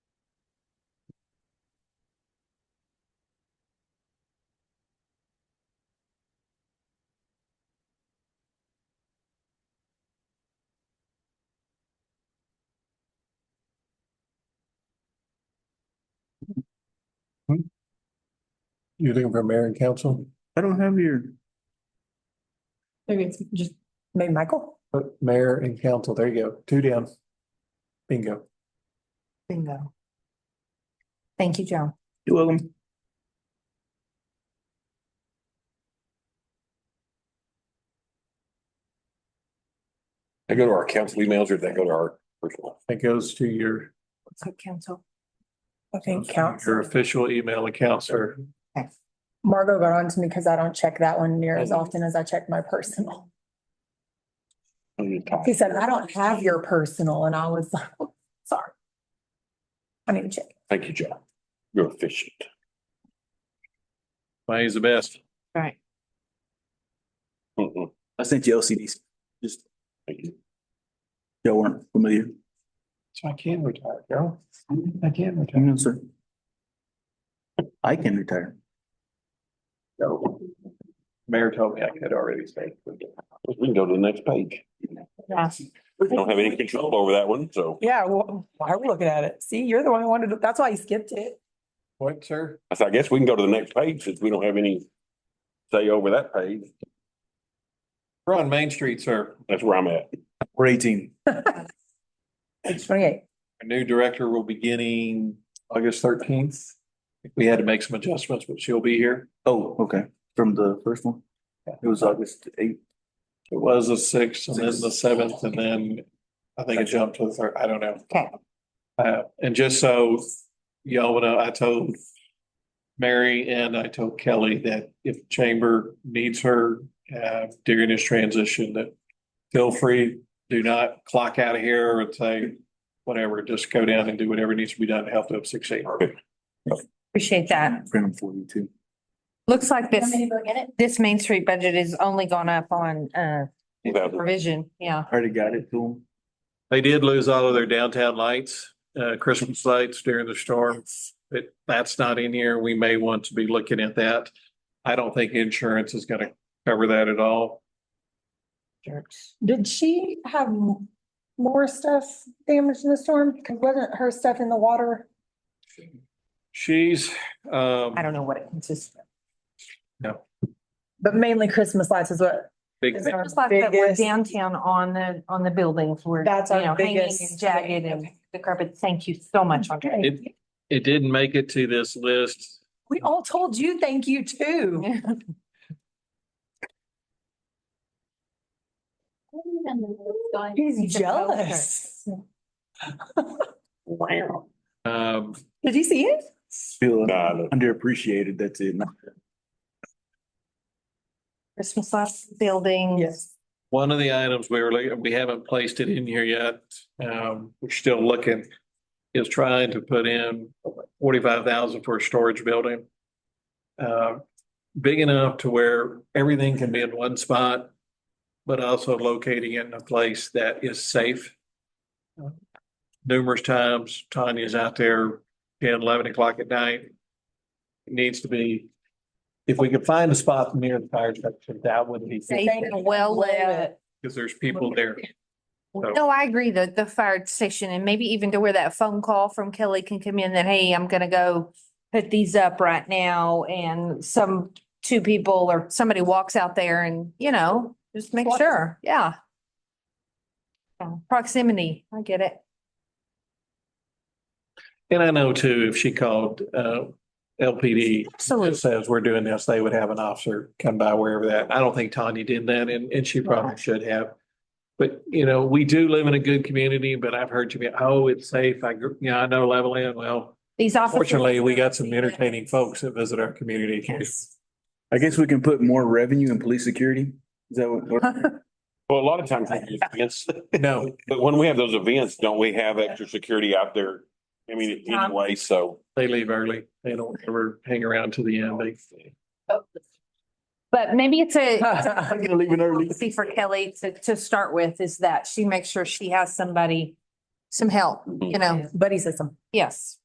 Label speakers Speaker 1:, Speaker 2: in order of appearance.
Speaker 1: Hmm? You're looking for mayor and council,
Speaker 2: I don't have your,
Speaker 3: Maybe it's just, maybe Michael?
Speaker 1: but Uh, mayor and council, there you go, two down. Bingo.
Speaker 3: Bingo. Thank you, Joe.
Speaker 2: you're welcome.
Speaker 4: They go to our council emails or they go to our personal.
Speaker 1: That goes to your,
Speaker 3: Okay, council. Okay,
Speaker 1: your
Speaker 3: council.
Speaker 1: official email account, sir.
Speaker 3: Margot got on to me because I don't check that one near as often as I check my personal.
Speaker 4: Oh,
Speaker 3: He said, I don't have your personal, and I was like, "Oh, sorry. I need to check.
Speaker 4: Thank you, John. You're efficient.
Speaker 1: Mine's the best.
Speaker 5: Right.
Speaker 4: Mhm.
Speaker 2: I sent you LCDs. Just,
Speaker 4: Thank you.
Speaker 2: y'all weren't familiar. Mm-hmm.
Speaker 1: So I can retire, Joe. I can retire.
Speaker 2: No, sir. I can retire.
Speaker 4: No,
Speaker 1: Mayor told me I could already say.
Speaker 4: We can go to the next page. We don't have any control over that one, so
Speaker 3: Yeah, well, why are we looking at it? See, you're the one who wanted, that's why you skipped it.
Speaker 1: What, sir?
Speaker 4: I said, I guess we can go to the next page since we don't have any say over that page.
Speaker 1: We're on Main Street, sir.
Speaker 4: That's where I'm at.
Speaker 2: We're eighteen.
Speaker 3: Page twenty-eight.
Speaker 1: Our new director will be beginning August thirteenth. We had to make some adjustments, but she'll be here.
Speaker 2: Oh, okay. From the first one? It was August eighth.
Speaker 1: It was the sixth and then the seventh and then I think it jumped to the third, I don't know.
Speaker 3: Okay.
Speaker 1: Uh, and just so y'all know, I told Mary and I told Kelly that if Chamber needs her uh during this transition, that feel free, do not clock out of here and say whatever, just go down and do whatever needs to be done to help them succeed.
Speaker 5: Appreciate that.
Speaker 2: Freedom for you too.
Speaker 5: Looks like this,
Speaker 3: it?
Speaker 5: this Main Street budget is only gone up on, uh,
Speaker 4: Without-
Speaker 5: provision, yeah.
Speaker 2: Already got it to him.
Speaker 1: They did lose all of their downtown lights, uh, Christmas lights during the storm. But that's not in here. We may want to be looking at that. I don't think insurance is gonna cover that at all.
Speaker 5: Jerks.
Speaker 3: Did she have m- more stuff damaged in the storm? Because wasn't her stuff in the water?
Speaker 1: She's, um,
Speaker 3: I don't know what it consists of.
Speaker 1: No.
Speaker 3: But mainly Christmas lights is what,
Speaker 1: big-
Speaker 3: Is it- our
Speaker 5: Just like that we're
Speaker 3: biggest-
Speaker 5: downtown on the, on the buildings, we're, you
Speaker 3: That's our
Speaker 5: know, hanging
Speaker 3: biggest
Speaker 5: and jagged and
Speaker 3: thing.
Speaker 5: the carpet. Thank you so much, Andre.
Speaker 1: It- it didn't make it to this list.
Speaker 3: we all told you thank you too. He's jealous.
Speaker 4: Wow.
Speaker 1: Um,
Speaker 3: Did you see it?
Speaker 2: Feel
Speaker 4: Nah, no.
Speaker 2: underappreciated. That's it.
Speaker 5: Christmas lights, building.
Speaker 3: Yes.
Speaker 1: one of the items we were, looking- we haven't placed it in here yet. Um, we're still looking, is trying to put in forty-five thousand for a storage building. Uh, big enough to where everything can be in one spot, but also locating it in a place that is safe. Numerous times Tanya's out there 10, 11 o'clock at night. It needs to be, if we could find a spot near the fire station, that would be.
Speaker 5: Safe and well lit.
Speaker 1: Because there's people there. So-
Speaker 5: No, I agree, the, the fire station and maybe even to where that phone call from Kelly can come in that, hey, I'm gonna go put these up right now and some, two people or somebody walks out there and, you know, just make
Speaker 3: Watch.
Speaker 5: sure, yeah. Proximity, I get it.
Speaker 1: And I know too, if she called uh LPD,
Speaker 5: Absolutely.
Speaker 1: says we're doing this, they would have an officer come by wherever that. I don't think Tanya did that and and she probably should have. But you know, we do live in a good community, but I've heard you be, oh, it's safe. I, gr- you know, I know Levelland. Well,
Speaker 5: These officers.
Speaker 1: fortunately, we got some entertaining folks that visit our community.
Speaker 5: Yes.
Speaker 2: I guess we can put more revenue in police security. Is that what?
Speaker 4: Well, a lot of times, we do events,
Speaker 1: No,
Speaker 4: but when we have those events, don't we have extra security out there? I mean, anyway, so.
Speaker 1: they leave early. They don't ever hang around to the end. They
Speaker 5: But maybe it's a, it's a
Speaker 2: I'm gonna leave it early.
Speaker 5: policy for Kelly to, to start with is
Speaker 4: Mm-hmm.
Speaker 5: that she makes sure she has somebody, some help, you know,
Speaker 3: Buddy says something.
Speaker 5: yes.